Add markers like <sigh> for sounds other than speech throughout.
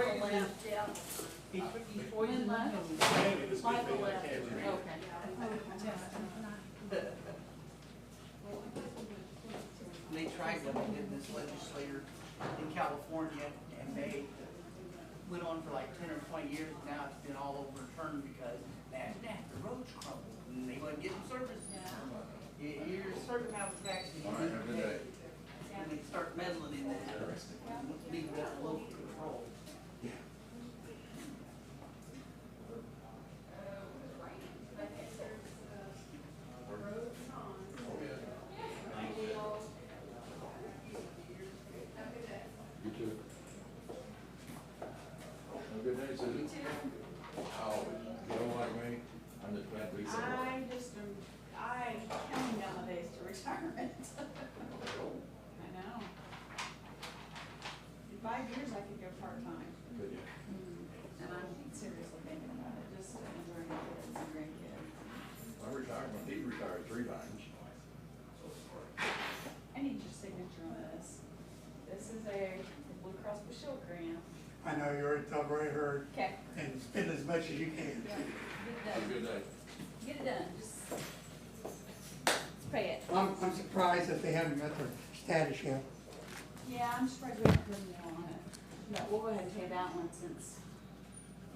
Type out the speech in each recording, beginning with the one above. Yeah. Before before you When left. Maybe this big Michael thing I left. can't read. Okay. They tried when they did this legislature in California, and they went on for like ten or twenty years, and now it's been all overturned because imagine that, the roads crumbled, and they wasn't getting service. Your, your certain house is actually. All right, have a good day. When they start meddling in that, leave that local control. You too. Have a good day, Susan. Oh, you don't like me? I'm just glad we said it. I just, am- I counting down the days to retirement. <laughs> I know. In five years, I could go part-time, Good. Hmm. and I'm seriously thinking about it, just to enjoy my kids and grandkids. I retired, when he retired three times. I need your signature on this. This is a Blue Cross Blue Shield grant. I know you already told Ray Hurd, Okay. and spend as much as you can. Get it Have a done, good day. get it done, just, just pay it. I'm, I'm surprised that they haven't met their status yet. Yeah, I'm just probably gonna put a on it. No, we'll go ahead and pay that one since. I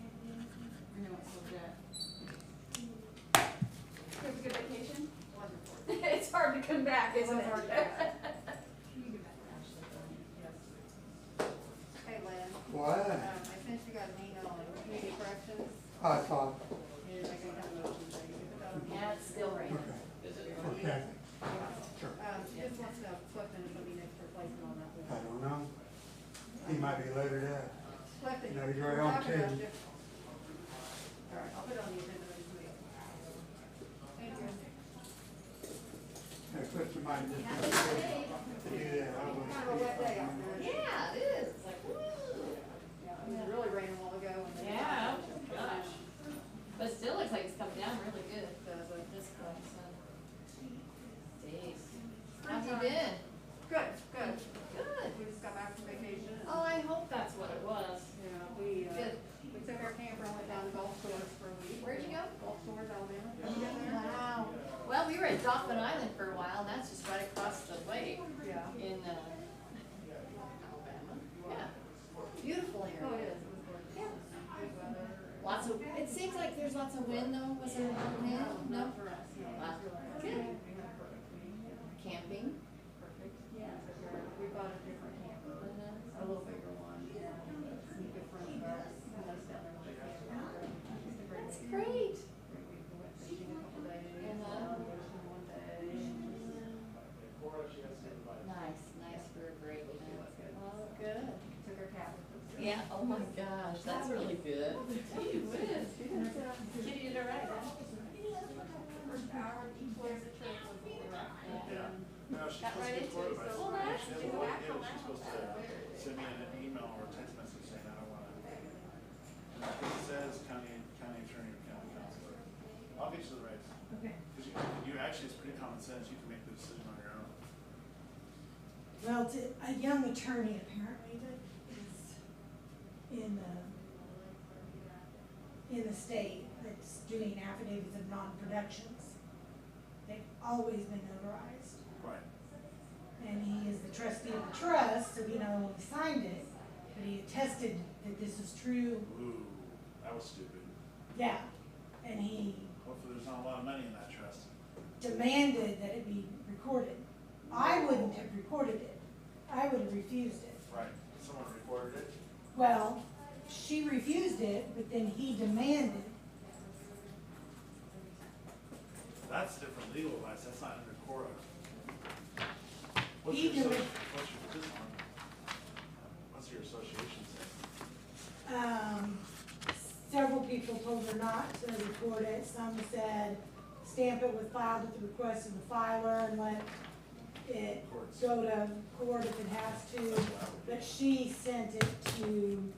know it's legit. You Have a good vacation? <laughs> It's hard to come back, isn't it? Hey, Lynn, um, Why? I sent you guys an email on community corrections, I thought, and I got that motion, so you can put that on. <laughs> Yeah, it's still okay, raining. okay, sure. Um, she just wants to know if Clifton will be next replacement on that I don't one. know. He might be later there. Clifton, No, you're we're on talking about ten. different- All right, I'll put it on the agenda next week. Thank you. I put some money to do that. I wouldn't Kind of a wet day out be- there. Yeah, it is, it's like, woo. Yeah, it was really raining a while ago. and then- Yeah, oh gosh. But it still looks like it's come down really good. So I was like, this close. Jeez. How's it been? Good, good. Good. We just got back from vacation. and- Oh, I hope that's what it was. Yeah, we, uh, Good. we took our camper and went down to Gulf Shores for a week. Where'd you go? Gulf Shores, Alabama. Wow. Well, we were at Dolphin Island for a while, and that's just right across the lake Yeah. in, uh, Alabama. Yeah. Beautiful Oh, it area. is, it was gorgeous. Good weather. Lots of, it seems like there's lots of wind though, was there a lot of wind? No? Not for us, no. Wow. Good. Camping? Yeah, we bought a different camper, a little bigger one, and some good friends of ours, who lives down there with their camper. That's It's a great weekend. great. Great week, we went fishing a couple days, Uh-huh. um, fishing one day, Nice, nice for a break. Yeah, it's good. Oh, good. took our cat with us. Yeah, oh my gosh, that's really good. Gee whiz. She didn't, uh, Kitty did all right, huh? First hour, each way of the trip was a little rough. Yeah. No, she's Got supposed to right be into it, quarterback. Well, so- that's- She doesn't want to do it. She's supposed to send me an email or a text message saying, I don't want to. It says county, county attorney or county counselor. I'll get you the rights. Okay. Because you, you actually, it's pretty common sense. You can make the decision on your own. Well, it's a- a young attorney apparently that is in the, in the state that's doing affidavits of non-productions. They've always been notarized, Right. and he is the trustee of the trust, so he not only signed it, but he attested that this is true, Ooh, that was stupid. yeah. And he Hopefully, there's not a lot of money in that trust. demanded that it be recorded. I wouldn't have recorded it, I would have refused it. Right. Someone recorded it. Well, she refused it, but then he demanded. That's different legal advice. That's not under Cora. What's your, He associ- do it. what's your, this one? What's your association say? Um, several people told her not to record it. Some said stamp it with filed at the request of the filer and let it Courts. go to court if it has to. But she sent it to